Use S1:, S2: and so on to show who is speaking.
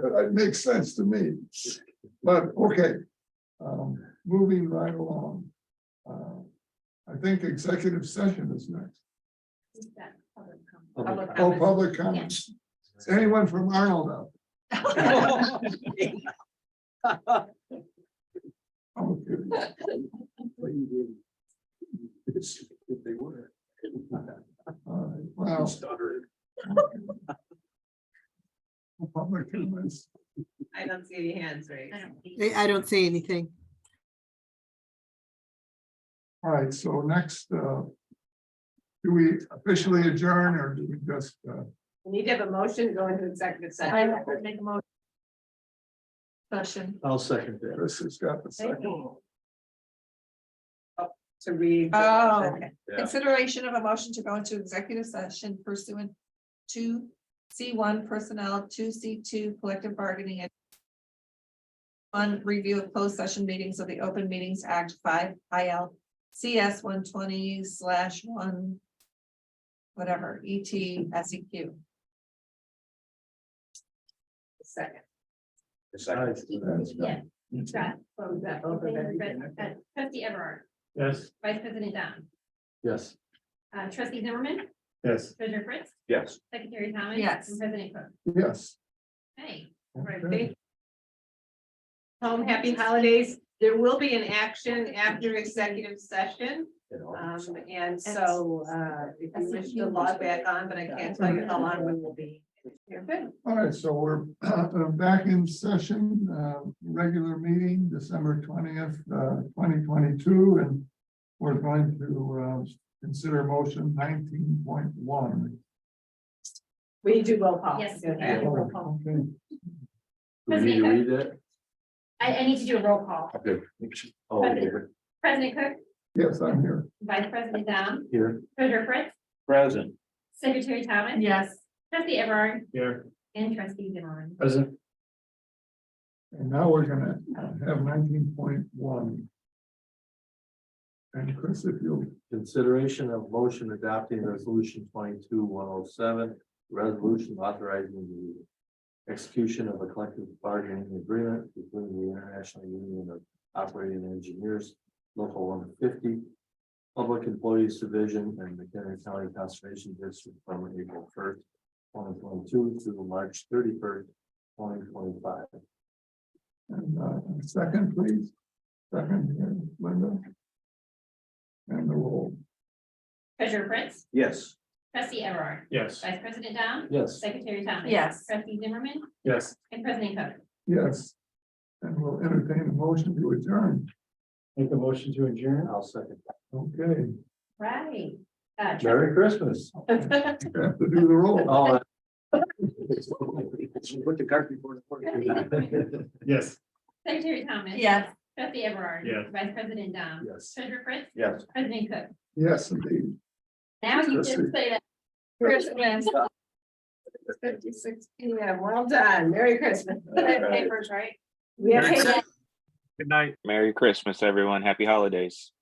S1: That makes sense to me. But, okay. Um, moving right along. Uh, I think executive session is next. Oh, public comments. Is Anyone from Arnold out? Oh, good.
S2: If they were.
S1: All right, Well,
S2: Stuttering.
S1: public comments.
S3: I don't see any hands raised.
S4: I, I don't see anything.
S1: All right, so next, uh. Do we officially adjourn or do we just, uh?
S3: We Need to have a motion to go into executive
S5: I
S3: session.
S5: would make a motion. Session.
S2: I'll second that.
S1: Chris has got the second.
S3: Oh, To read.
S5: Oh, okay.
S2: Yeah.
S5: Consideration of a motion to go into executive session pursuant to C one personnel, two C two collective bargaining. and One review of closed session meetings of the Open Meetings Act five I L C S one twenty slash one. Whatever, E T S E Q.
S3: Second.
S1: That's right.
S6: Scott,
S3: Close that over
S6: President, uh,
S3: there.
S6: trustee Everard,
S2: Yes.
S6: vice president Dom,
S2: Yes.
S6: uh, trustee Zimmerman,
S2: Yes.
S6: treasurer Fritz,
S2: Yes.
S6: secretary Thomas.
S5: Yes.
S6: And president Cook.
S1: Yes.
S6: Hey.
S3: Right,
S1: okay.
S3: thank- Home, happy holidays. There will be an action after executive session. Um, and so, uh, if you wish to log back on, but I can't tell you how long we will be. You're good.
S1: All right, so we're uh, back in session, uh, regular meeting, December twentieth, uh, twenty twenty-two, and we're going to uh, consider motion nineteen point one.
S3: We do roll call.
S6: Yes.
S3: Okay. Roll call.
S1: Okay,
S2: Do we need to read that?
S6: I, I need to do a roll call.
S2: Okay. Oh, here.
S6: President Cook,
S1: Yes, I'm here.
S6: vice president Dom,
S2: Here.
S6: treasurer Fritz,
S2: Present.
S6: secretary Thomas.
S3: Yes.
S6: Trustee Everard
S2: Here.
S6: and trustee Zimmerman.
S2: Present.
S1: And now we're gonna have nineteen point one. And Chris, if you'll
S2: Consideration of motion adopting resolution twenty-two one oh seven, resolution authorizing the execution of a collective bargaining agreement between the International Union of Operating Engineers, Local one fifty, Public Employees Division and McHenry County Conservation District from April first, twenty twenty-two to March thirty-first, twenty twenty-five.
S1: And uh, a second, please. Second, here, Linda. And the roll.
S6: Treasurer Fritz,
S2: Yes.
S6: trustee Everard,
S2: Yes.
S6: vice president Dom,
S2: Yes.
S6: secretary Thomas.
S5: Yes.
S6: Trustee Zimmerman
S2: Yes.
S6: and president Cook.
S1: Yes. And we'll entertain a motion to adjourn.
S2: Make a motion to adjourn. I'll second.
S1: Okay.
S6: Right. Uh, trustee
S2: Merry Christmas.
S1: You Have to do the roll.
S2: Oh. Put the cart before
S6: horse.
S2: Yes.
S6: Secretary Thomas.
S5: Yes.
S6: Trustee Everard.
S2: Yes.
S6: Vice President Dom.
S2: Yes.
S6: Treasurer Fritz.
S2: Yes.
S6: President Cook.
S1: Yes, indeed.
S6: Now you
S1: Trustee.
S6: can say that.
S5: Christmas.
S3: Fifty-six, yeah, well done. Merry Christmas.
S2: All right.
S3: Papers, right? We have
S7: Merry
S3: papers.
S7: Christmas. Merry Christmas, everyone. Happy holidays.